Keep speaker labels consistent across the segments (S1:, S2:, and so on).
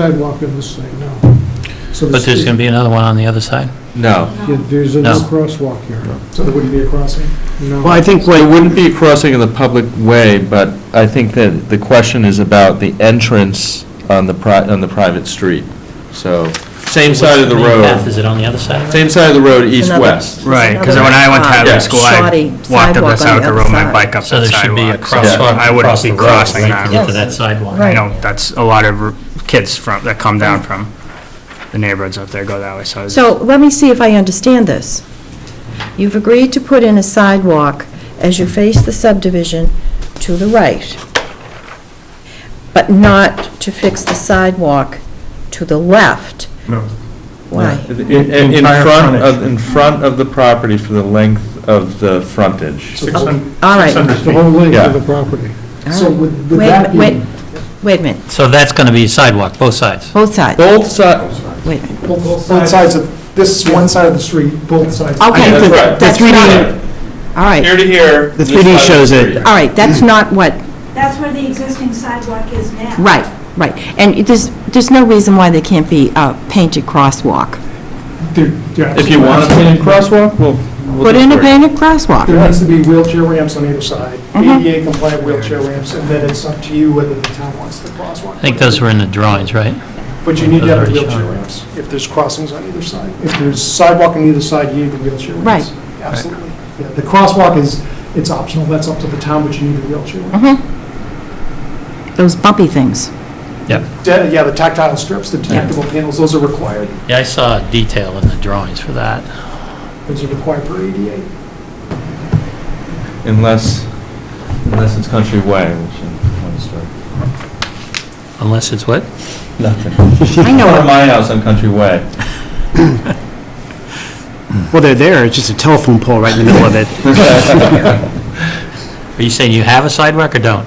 S1: sidewalk in this thing, no. So
S2: But there's going to be another one on the other side?
S3: No.
S1: Yeah, There's a no
S2: No.
S1: crosswalk here.
S4: So there wouldn't be a crossing?
S1: No.
S3: Well, I think there wouldn't be a crossing in the public way, but I think that the question is about the entrance on the pri, on the private street. So, same side of the
S2: What's main path?
S3: road,
S2: Is it on the other side?
S3: same side of the road,
S5: It's another-
S3: east-west.
S6: Right, because when I went to
S3: Yeah.
S6: Hadley School, I
S5: Shoddy
S6: walked up
S5: sidewalk on
S6: the
S5: the
S6: South Road,
S5: outside.
S6: my bike up
S2: So
S6: the
S2: there should be a
S6: sidewalk. so
S2: crosswalk
S6: I wouldn't
S2: across
S6: be
S2: the road,
S6: crossing
S2: right, to get
S6: that.
S2: to that sidewalk.
S6: I
S5: Right.
S6: know, that's a lot of r- kids from, that come down from the neighborhoods up there go that way, so. it's-
S5: So let me see if I understand this. You've agreed to put in a sidewalk as you face the subdivision to the right, but not to fix the sidewalk to the left.
S4: No.
S5: Why?
S3: In, in in
S4: Entire
S3: front of,
S4: frontage.
S3: in front of the property for the length of the frontage.
S4: Six hun-
S5: all right.
S4: 600
S1: The
S4: feet.
S1: whole length
S3: Yeah.
S1: of the property.
S4: So
S5: All right.
S4: would- would
S5: Wait a
S4: that be-
S5: minute, Wait, wait a minute,
S2: So that's going to be sidewalk, both sides?
S5: both sides,
S3: Both sides,
S5: wait a minute.
S4: Both sides of, this one side of the street, both sides.
S5: Okay.
S3: Yeah, that's
S5: the-
S3: right.
S5: that's
S6: The 3D
S5: not- All right,
S3: here to here.
S6: The
S3: this
S6: 3D
S3: side of
S6: shows
S3: the
S6: it.
S3: street.
S5: all right,
S4: Mm.
S5: that's not what,
S7: That's where the existing sidewalk is now.
S5: right, right. And there's, there's no reason why there can't be a painted crosswalk.
S3: If you want a painted crosswalk, we'll. we'll
S5: Put
S3: do
S5: in a
S3: it.
S5: painted crosswalk.
S4: There needs to be wheelchair ramps on either side,
S5: Mhm.
S4: ADA compliant wheelchair ramps, and then it's up to you whether the town wants the crosswalk.
S2: I think those were in the drawings, right?
S4: But you need to have
S2: Those are
S4: wheelchair
S2: shown.
S4: ramps, if there's crossings on either side. If there's sidewalk on either side, you need the wheelchair ramps.
S5: Right.
S4: Absolutely. Yeah, the crosswalk is, it's optional, that's up to the town, but you need the wheelchair ramp.
S5: Those bumpy things.
S4: De- Yeah, the tactile strips, the detectable panels, those are required.
S2: Yeah, I saw a detail in the drawings for that.
S4: Those are required per ADA.
S3: Unless, unless it's country way, which is one story.
S2: Unless it's what?
S3: Nothing.
S5: I know
S3: Or
S5: what
S3: my house on Country Way.
S8: Well, they're there, it's just a telephone pole right in the middle of it.
S2: Are you saying you have a sidewalk or don't?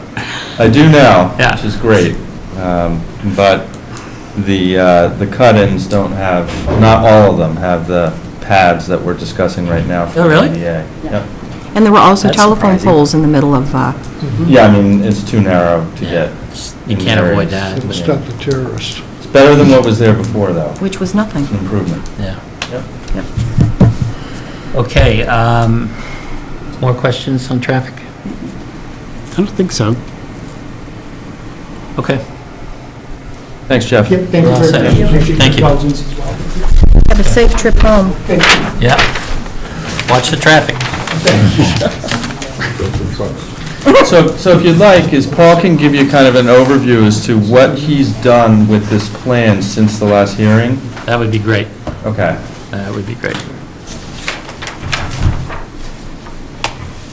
S3: I do now,
S2: Yeah.
S3: which is great. Um, But the, uh, the cut-ins don't have, not all of them have the pads that we're discussing right now. for
S2: Oh, really?
S3: the ADA. Yep.
S5: And there were also
S2: That's
S5: telephone
S2: surprising.
S5: poles in the middle of, uh,
S2: Mm-hmm.
S3: Yeah, I mean, it's too narrow to get.
S2: You
S3: in
S2: can't avoid
S3: areas.
S2: that.
S1: It'll stop the terrorists.
S3: It's better than what was there before, though.
S5: which was nothing.
S3: It's an improvement.
S2: Yeah.
S3: Yep.
S5: Yep.
S2: Okay, um, more questions on traffic?
S8: I don't think so.
S2: Okay.
S3: Thanks, Jeff.
S4: Yep, thank you
S2: Well said.
S4: very much. Appreciate your
S2: Thank you.
S4: indulgence as well.
S5: Have a safe trip home.
S2: Yeah. Watch the traffic.
S3: So, so if you'd like, is Paul can give you kind of an overview as to what he's done with this plan since the last hearing?
S2: That would be great.
S3: Okay.
S2: That would be great.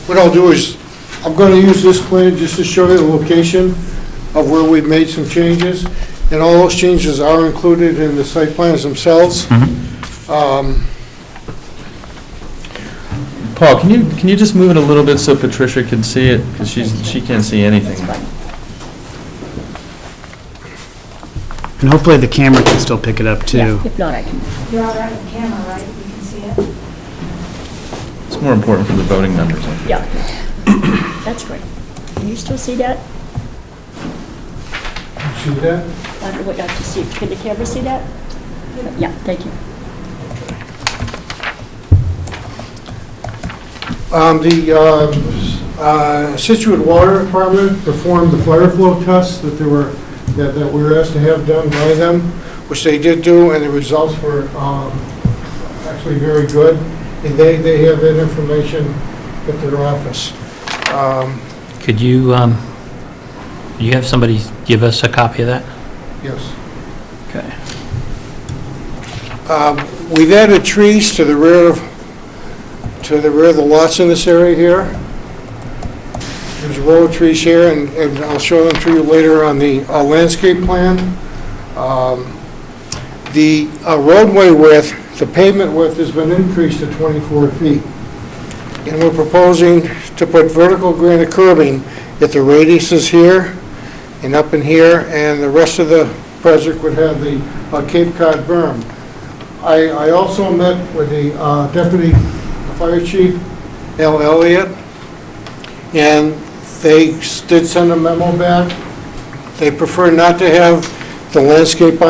S1: What I'll do is, I'm going to use this plan just to show you the location of where we've made some changes, and all those changes are included in the site plans themselves. Um,
S3: Paul, can you, can you just move it a little bit so Patricia can see it? Because she's, she can't see anything.
S8: And hopefully the camera can still pick it up, too.
S5: If not, I can.
S7: You're all right on camera, right? You can see it?
S3: It's more important for the voting members.
S9: Yeah, that's great. Can you still see that?
S1: See that?
S9: I don't know what I have to see. Can the camera see that? Yeah, thank you.
S1: Um, The um, uh, Situate Water Department performed the fire flow tests that they were, that that we were asked to have done by them, which they did do, and the results were um, actually very good. And they, they have that information at their office. Um,
S2: Could you, um, you have somebody give us a copy of that?
S1: Yes.
S2: Okay.
S1: Um, We've added trees to the rear of, to the rear of the lots in this area here. There's a row of trees here, and and I'll show them to you later on the uh, landscape plan. Um, The uh, roadway width, the pavement width has been increased to 24 feet. And we're proposing to put vertical granite curbing at the radiuses here and up in here, and the rest of the project would have the uh, Cape Cod berm. I, I also met with the uh, deputy fire chief, Al Elliott, and they s- did send a memo back. They prefer not to have the landscape by